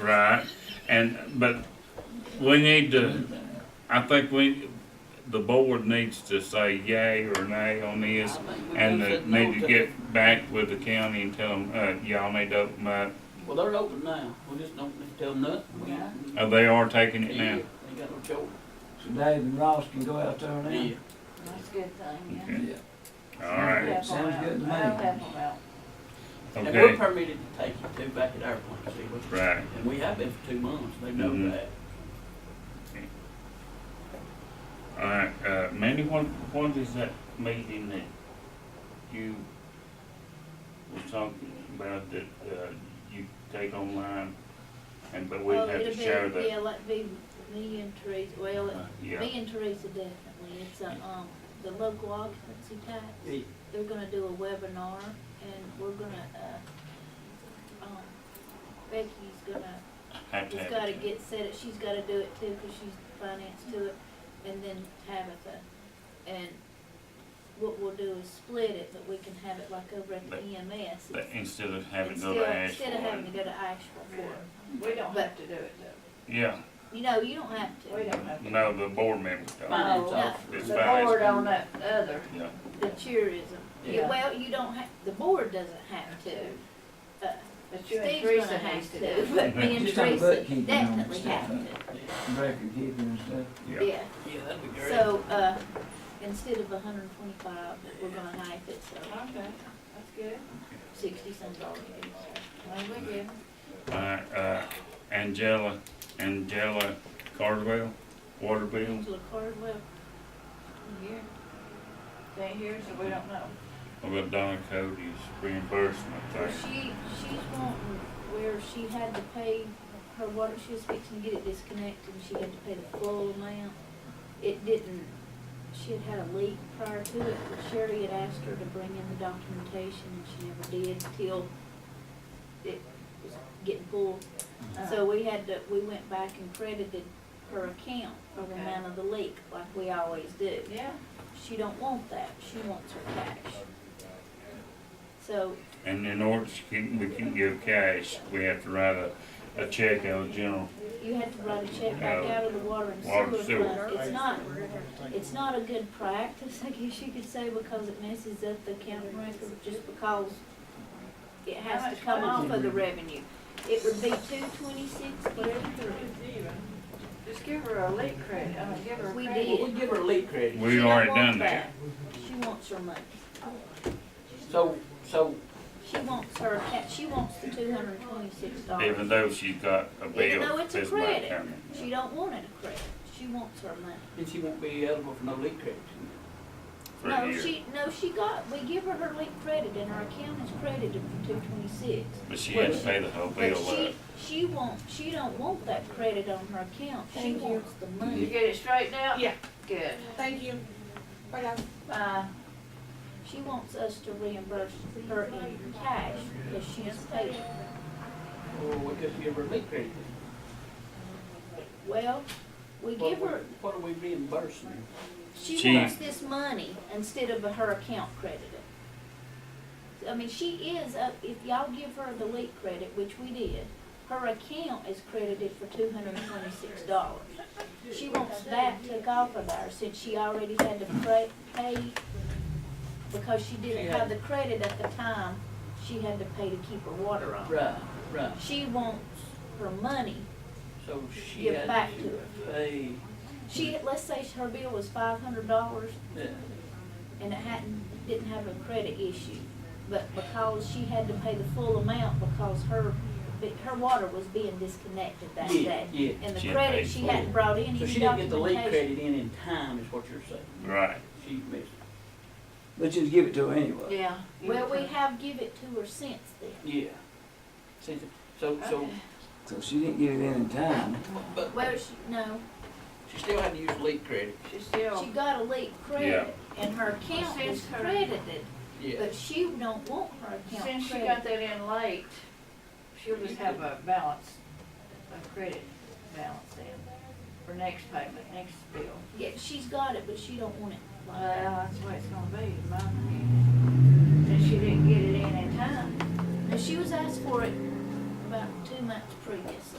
right? And, but we need to, I think we, the board needs to say yay or nay on this. And they need to get back with the county and tell them, uh, y'all need to open up. uh, Well, they're open now, we just don't need to tell them nothing. We- Yeah. Uh, they are taking it Yeah, now. Ain't got no choice. So Dave and Ross can go out there now? Yeah, That's a good thing, yeah. Okay. Yeah. All right, Help 'em Sounds out. good to me. I'll help 'em out. and we're okay, permitted to take it too back at our plant, see, we- right. and we have been for two months, they Mhm. know that. All right, uh, Mandy, when, when is that meeting that you were talking about that, uh, you take online? And, but we Well, have to it'll be- share that, Uh, Yeah, like be me and Teresa, well, it- yeah, me and Teresa definitely, it's a, um, the local occupancy tax. Yeah. They're gonna do a webinar and we're gonna, uh, um, Becky's gonna, have to just have gotta it. get set, up. she's gotta do it too, cause she's financed to it, and then Tabitha. And what we'll do is split it, but we can have it like over at E the But- EMS. But instead of having to go Instead, to instead of having to Asheville, go to Asheville for it. We don't But- have to do it though. yeah, You know, you don't have to. We don't have to. no, the board members Oh, don't, Finance No. officer. It's The fine. board on that other, yeah. The tourism. Yeah. Yeah, well, you don't have, the board doesn't have to. Uh, but you and Steve's Teresa gonna needs have to do it. to, but me and Just on Teresa bookkeeping and definitely stuff, have to, Record keeping and stuff. Yeah. yeah. Yeah, that'd be great. So, uh, instead of hundred and twenty-five, we're gonna knife it, so Okay, that's good. sixty some dollars. Well, we good. All right, uh, Angela, Angela Cardwell, water bill, Angela Cardwell, Here. They here, so we don't know. what about Donna Cody's reimbursement well, thing? she, she's wanting where she had to pay her water, she was fixing to get it disconnected, and she had to pay the full amount. It didn't, she had had a leak prior to it, but Sherry had asked her to bring in the documentation, and she never did till it was getting full. So we had to, we went back and credited her account for the Okay. amount of the leak, like we always do. Yeah, She don't want that, she wants her cash. So, And in order to keep, we can give cash, we have to write a, a check out of general, You have to write a check back Yeah. out of the water and Water and sewer sewer. fund. It's not, it's not a good practice, I guess you could say, because it messes up the county record just because it How has much to come money? off of the revenue. It would be two twenty-six, whatever, just give her a leak credit, I mean, give her a We credit. did. Well, we give her a lead credit, we She don't already want done that. She wants her money. so, so She wants her, ca- she wants the two hundred and twenty-six Even dollars. though she's got a bill. Even though it's a that's not credit, coming. she don't want it a credit, she wants her money. then she won't be eligible for no lead credit. For a No, year. she, no, she got, we give her her late credit and her account is credited for two twenty-six. But she had to pay the whole But bill she, up. she won't, she don't want that credit on her account, she Thank you. wants the You money. get it straightened out? Yeah. Good. Thank you. Bye guys. Uh, She wants us to reimburse her in cash because she's paid. Or we could give her a lead credit. Well, we What give we- her, What are we reimbursing? her? she She- wants this money instead of her account credited. I mean, she is, uh, if y'all give her the late credit, which we did, her account is credited for two hundred and twenty-six dollars. She wants that took off of her since she already had to pay, pay because she She didn't had- have the credit at the time. She had to pay to keep her water on. Right, right, She wants her money so she Give had back to to pay, She, let's say her bill was five hundred dollars yeah, and it hadn't, didn't have a credit issue. But because she had to pay the full amount because her, her water was being disconnected that yeah, day. yeah. And the She had credit, paid she full. hadn't brought in So any she didn't get the lead documentation. credit in in time, is what you're saying. Right, She missed. But you'd give it to her anyway. yeah. Well, we have give it to her since then. Yeah. See, so, so, Okay. So she didn't get it in in time. but Well, she, no, she still had to use lead credit. She still, she got a late credit and her account Since was her- credited, Yeah. but she don't want her account since she got credited. that in late, she'll just have a balance, a credit balance then, for next payment, next bill. Yeah, she's got it, but she don't want it like Well, that. that's the way it's gonna be, in my opinion. And she didn't get it in in time. Now, she was asked for it about two months previously.